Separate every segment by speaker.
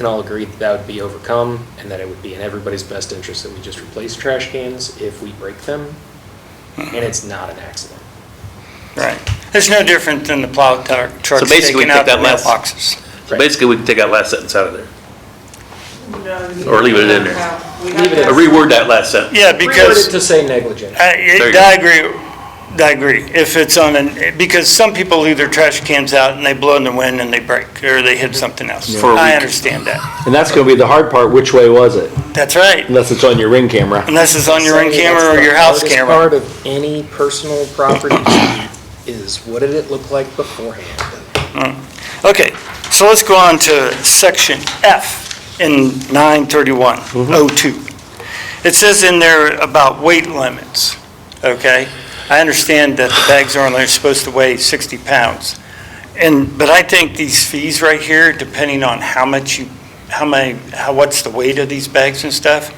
Speaker 1: can all agree that that would be overcome and that it would be in everybody's best interest that we just replace trash cans if we break them and it's not an accident.
Speaker 2: Right. It's no different than the plow tar- trucks
Speaker 3: basically,
Speaker 2: taking out the
Speaker 3: take that last-
Speaker 2: mailboxes.
Speaker 3: So basically, we can take that last sentence out of there, Or leave it in there.
Speaker 1: Leave it
Speaker 3: or reword that last sentence.
Speaker 2: Yeah,
Speaker 1: Reword it
Speaker 2: because,
Speaker 1: to say negligent.
Speaker 3: There
Speaker 2: I
Speaker 3: you go.
Speaker 2: I agree, I agree. If it's on an, because some people leave their trash cans out and they blow in the wind and they break, or they hit something else.
Speaker 3: For a
Speaker 2: I
Speaker 3: week.
Speaker 2: understand that.
Speaker 4: And that's gonna be the hard part, which way was it?
Speaker 2: That's right.
Speaker 4: Unless it's on your ring camera.
Speaker 2: Unless it's on your own
Speaker 1: Say
Speaker 2: camera
Speaker 1: that's
Speaker 2: or
Speaker 1: the
Speaker 2: your house
Speaker 1: hardest
Speaker 2: camera.
Speaker 1: Part of any personal property is what did it look like beforehand?
Speaker 2: Okay, so let's go on to section F in 93102. It says in there about weight limits, okay? I understand that the bags are only supposed to weigh 60 pounds. And, but I think these fees right here, depending on how much you, how many, how, what's the weight of these bags and stuff,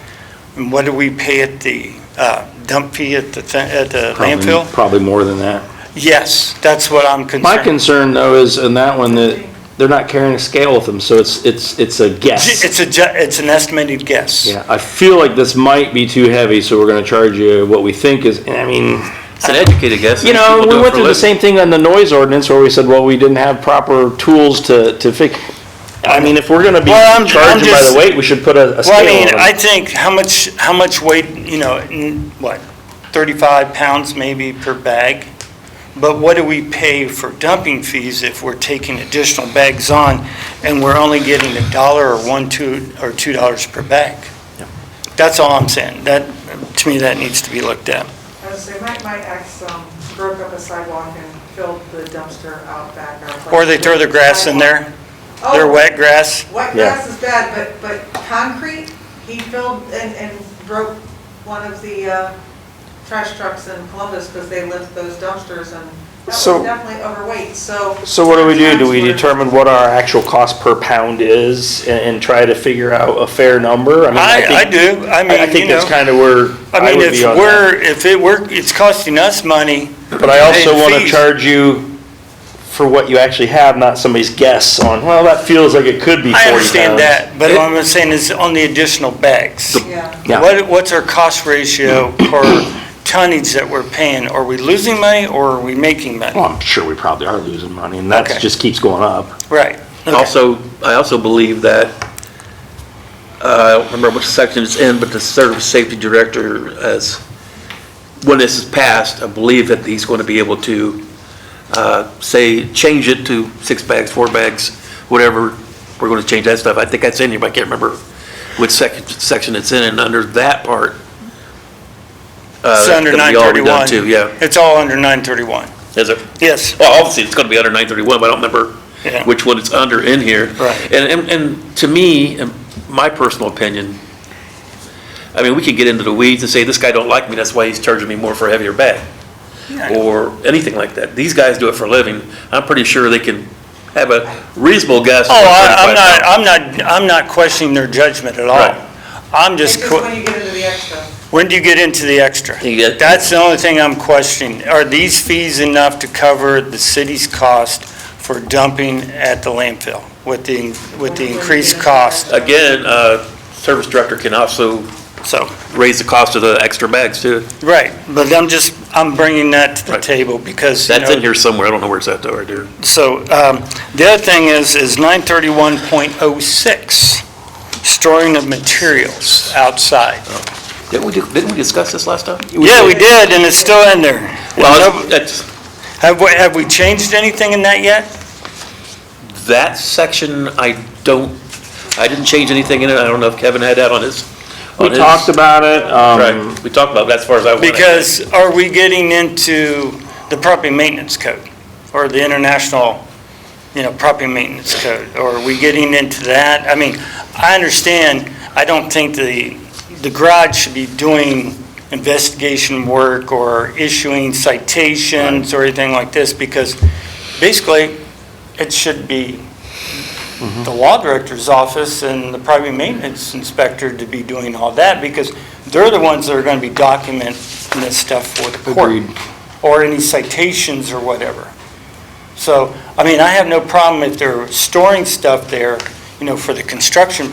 Speaker 2: and what do we pay at the uh, dump fee at the, thi- at the
Speaker 4: Probably-
Speaker 2: landfill?
Speaker 4: Probably more than that.
Speaker 2: Yes, that's what I'm concerned.
Speaker 4: My concern though is in that one that they're not carrying a scale with them, so it's, it's, it's a guess.
Speaker 2: It's a, ju- it's an estimated guess.
Speaker 4: Yeah, I feel like this might be too heavy, so we're gonna charge you what we think is, and I mean,
Speaker 3: It's an educated guess.
Speaker 4: you
Speaker 3: and
Speaker 4: know,
Speaker 3: people do
Speaker 4: we
Speaker 3: it
Speaker 4: went
Speaker 3: for a
Speaker 4: through the
Speaker 3: living.
Speaker 4: same thing on the noise ordinance where we said, well, we didn't have proper tools to, to fix. I mean, if we're gonna be
Speaker 2: Well, I'm- I'm
Speaker 4: charging by
Speaker 2: just-
Speaker 4: the weight, we should put a, a scale
Speaker 2: Well, I
Speaker 4: on
Speaker 2: mean,
Speaker 4: them.
Speaker 2: I think how much, how much weight, you know, n- what, 35 pounds maybe per bag? But what do we pay for dumping fees if we're taking additional bags on and we're only getting a dollar or one, two, or $2 dollars per bag? That's all I'm saying. That, to me, that needs to be looked at.
Speaker 5: As I say, my, my ex um, broke up a sidewalk and filled the dumpster out back. our front.
Speaker 2: Or they throw their grass in there, their
Speaker 5: Oh,
Speaker 2: wet grass.
Speaker 5: Wet
Speaker 4: Yeah.
Speaker 5: grass is bad, but, but concrete, he filled and, and broke one of the uh, trash trucks in Columbus because they lift those dumpsters and that was
Speaker 4: So-
Speaker 5: definitely overweight, so.
Speaker 4: So what do we do? Do we
Speaker 5: Sometimes we're-
Speaker 4: determine what our actual cost per pound is and, and try to figure out a fair number? mean,
Speaker 2: I, I
Speaker 4: think-
Speaker 2: do. I
Speaker 4: I I
Speaker 2: mean, you
Speaker 4: think that's
Speaker 2: know,
Speaker 4: kind of where
Speaker 2: I
Speaker 4: I
Speaker 2: mean,
Speaker 4: would
Speaker 2: if
Speaker 4: be on that.
Speaker 2: we're, if it were, it's costing us money.
Speaker 4: But I also
Speaker 2: paying
Speaker 4: want to
Speaker 2: fees.
Speaker 4: charge you for what you actually have, not somebody's guess on, well, that feels like it could be 40
Speaker 2: I understand
Speaker 4: pounds.
Speaker 2: that, but what I'm saying is on the additional bags.
Speaker 5: Yeah,
Speaker 4: Yeah.
Speaker 2: What, what's our cost ratio per tonnage that we're paying? Are we losing money or are we making
Speaker 4: Well,
Speaker 2: money?
Speaker 4: I'm sure we probably are losing money and
Speaker 2: Okay.
Speaker 4: that just keeps going up.
Speaker 2: Right. Okay.
Speaker 3: Also, I also believe that, uh, I don't remember which section it's in, but the service safety director has, when this is passed, I believe that he's going to be able to, uh, say, change it to six bags, four bags, whatever, we're going to change that stuff. I think that's in here, but I can't remember which section, section it's in, and under that part. uh,
Speaker 2: It's
Speaker 3: that
Speaker 2: under
Speaker 3: could be all redone
Speaker 2: 931.
Speaker 3: too, Yeah,
Speaker 2: It's all under 931.
Speaker 3: is it?
Speaker 2: Yes.
Speaker 3: Well, obviously, it's gonna be under nine thirty-one, but I don't remember
Speaker 2: Yeah.
Speaker 3: which one it's under in here.
Speaker 2: Right.
Speaker 3: And, and, and to me, in my personal opinion, I mean, we could get into the weeds and say, this guy don't like me, that's why he's charging me more for a heavier bag, or anything like that. These guys do it for a living, I'm pretty sure they can have a reasonable guess.
Speaker 2: Oh, I- I'm
Speaker 3: 35
Speaker 2: not,
Speaker 3: pounds.
Speaker 2: I'm not, I'm not questioning their judgment at
Speaker 3: Right.
Speaker 2: all. I'm
Speaker 5: it's
Speaker 2: just,
Speaker 5: just
Speaker 2: que-
Speaker 5: when you get into the extra.
Speaker 2: when do you get into the extra?
Speaker 3: You get-
Speaker 2: That's the only thing I'm questioning. Are these fees enough to cover the city's cost for dumping at the landfill with the, with the increased cost?
Speaker 3: Again, uh, service director can also
Speaker 2: So,
Speaker 3: raise the cost of the extra bags too.
Speaker 2: right, but I'm just, I'm bringing that to the
Speaker 3: Right.
Speaker 2: table because, you
Speaker 3: That's in
Speaker 2: know,
Speaker 3: here somewhere, I don't know where it's at though, right there.
Speaker 2: so, um, the other thing is, is 931.06, storing of materials outside.
Speaker 3: Didn't we, do- didn't we discuss this last time?
Speaker 2: Yeah, we did, and it's still in there.
Speaker 3: Well, that's,
Speaker 2: Have, we- have we changed anything in that yet?
Speaker 3: That section, I don't, I didn't change anything in it, I don't know if Kevin had that on his.
Speaker 4: We
Speaker 3: on his-
Speaker 4: talked about it, um,
Speaker 3: Right, we talked about that as far as I went.
Speaker 2: Because are we getting into the property maintenance code or the international, you know, property maintenance code? Or are we getting into that? I mean, I understand, I don't think the, the garage should be doing investigation work or issuing citations or anything like this because basically it should be the law director's office and the property maintenance inspector to be doing all that because they're the ones that are going to be documenting this stuff for the court.
Speaker 4: Agreed.
Speaker 2: Or any citations or whatever. So, I mean, I have no problem if they're storing stuff there, you know, for the construction